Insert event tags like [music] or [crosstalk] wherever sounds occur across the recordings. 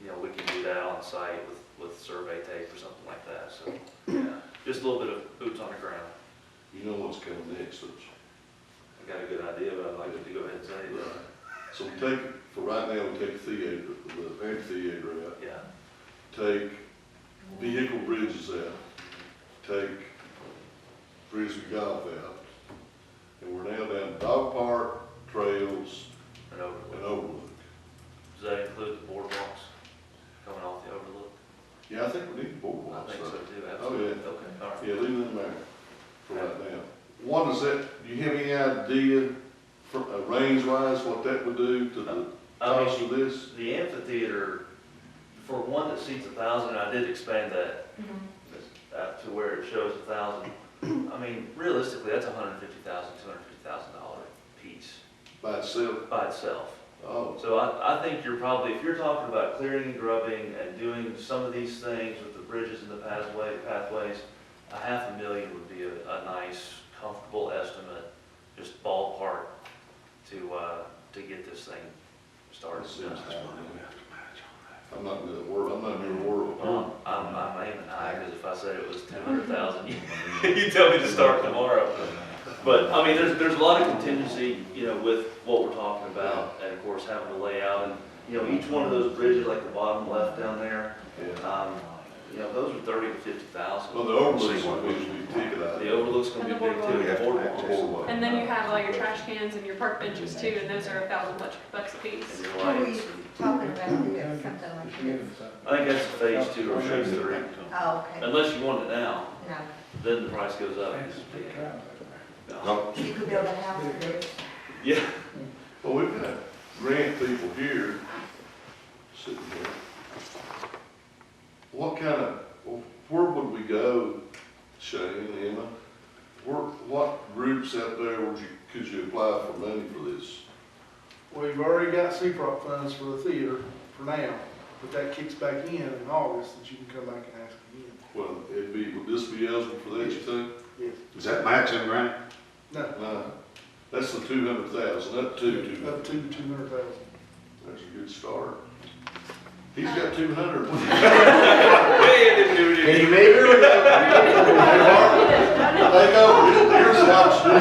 you know, we can do that on site with, with survey tape or something like that, so, yeah, just a little bit of boots on the ground. You know what's coming next, don't you? I got a good idea, but I'd like to go ahead and say that, So we take, for right now, we take theater, the amphitheater out, yeah, take vehicle bridges out, take frisbee golf out, and we're now down to dog park, trails, an and overlook. overlook. Does that include the boardwalks coming off the overlook? Yeah, I think we need I boardwalks, think so right? too, absolutely, okay, all right. Yeah, leave them there for right now. What is that, do you have any idea, for, uh, range wise, what that would do to the I mean, cost of this? The amphitheater, for one that seats a thousand, I did expand that Mm-hmm. uh, to where it shows a thousand. I mean, realistically, that's a hundred fifty thousand, two hundred fifty thousand dollar piece By itself? by itself. Oh, So I, I think you're probably, if you're talking about clearing and grubbing and doing some of these things with the bridges and the pathway, pathways, a half a million would be a, a nice, comfortable estimate, just ballpark to, uh, to get this thing started. That seems high. I'm not in the world, I'm not in your world. Um, I'm, I'm aiming high, because if I said it was two hundred thousand, [laughs] you [laughs] tell me to start tomorrow. But, I mean, there's, there's a lot of contingency, you know, with what we're talking about, and of course, having the layout, and, you know, each one of those bridges, like the bottom left down there, Yeah. um, you know, those are thirty to fifty Well, thousand. the overlays would be, we ticket out. The overlook's gonna be big too, the boardwalks. Overlay. And then you have all your trash cans and your park benches too, and those are a thousand bucks- bucks a and piece. your lights. talking about doing something like this. I think that's phase two or phase three. Oh, okay. Unless you want it now, No, then the price goes up. No. you could build a house with this. Yeah, [laughs] Well, we've got grant people here, sitting here. What kind of, where would we go, Shane, Emma? Where, what groups out there would you, could you apply for money for this? We've already got CPROC funds for the theater for now, but that kicks back in in August that you can come back and ask again. Well, it'd be, would this be eligible for that, you think? Yes. Is that matching, right? No, No, Uh, that's the two hundred thousand, up to two hundred. up to two hundred thousand. That's a good start. He's got two hundred. [laughs] Can you measure it? Take over, here's the [laughs] option.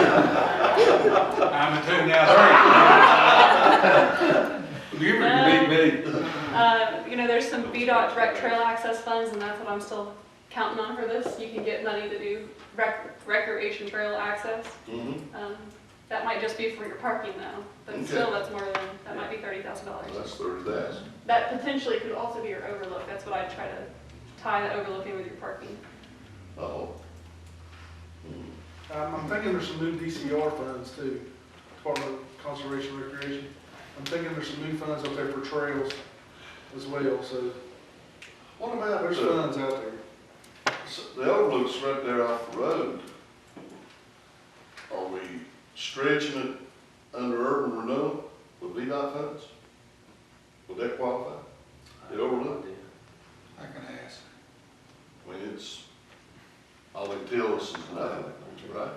I'm a two now, three. [laughs] You can beat me. Uh, you know, there's some VDOT direct trail access funds, and that's what I'm still counting on for this. You can get money to do rec- recreation trail access. Mm-hmm. Mhm. Um, that might just be for your parking though, but Okay. still, that's more than, that might be thirty thousand dollars. That's thirty thousand. That potentially could also be your overlook, that's what I'd try to tie the overlook in with your parking. Oh. Um, I'm thinking there's some new DCR funds too, Department of Conservation and Recreation. I'm thinking there's some new funds out there for trails as well, so What about, there's there's funds out there. Mm-hmm. the overlook's right there off the road. Are we stretching it under urban renewal with VDOT funds? Would that qualify? The overlook? I can ask. I mean, it's, all it tells us is nothing, right?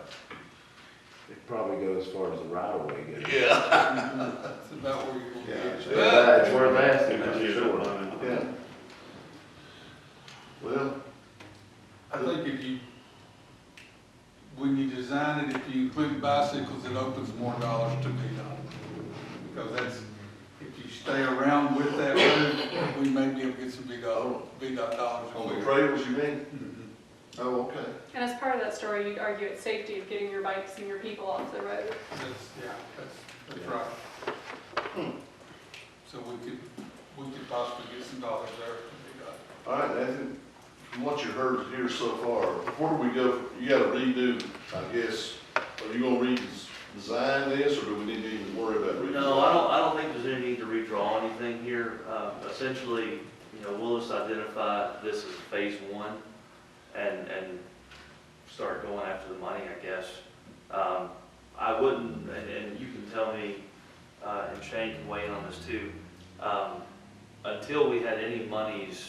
It probably goes as far as the right of way goes. Yeah. That's about where you're Yeah. That's worth asking, for sure. Yeah. Well, I think if you, when you design it, if you include bicycles, it opens more dollars to VDOT. Because that's, if you stay around with that road, we may be able to get some VDOT, VDOT dollars. on the trails, you mean? Mhm. Oh, okay. And as part of that story, you'd argue it's safety of getting your bikes and your people off the road. That's, yeah, that's, that's right. So we could, we could possibly get some dollars there from VDOT. All right, Nathan, from what you heard here so far, where do we go, you gotta redo, I guess, are you gonna redesign this, or do we need to even worry about redesign? No, I don't, I don't think there's any need to redraw anything here. Um, Essentially, you know, we'll just identify this as phase one and, and start going after the money, I guess. Um, I wouldn't, and, and you can tell me, uh, and Shane can weigh in on this too. Um, Until we had any monies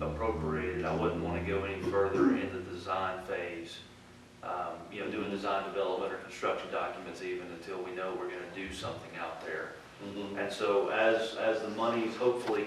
appropriated, I wouldn't want to go any further in the design phase um, you know, doing design development or construction documents even until we know we're gonna do something out there. Mhm. And so as, as the money's hopefully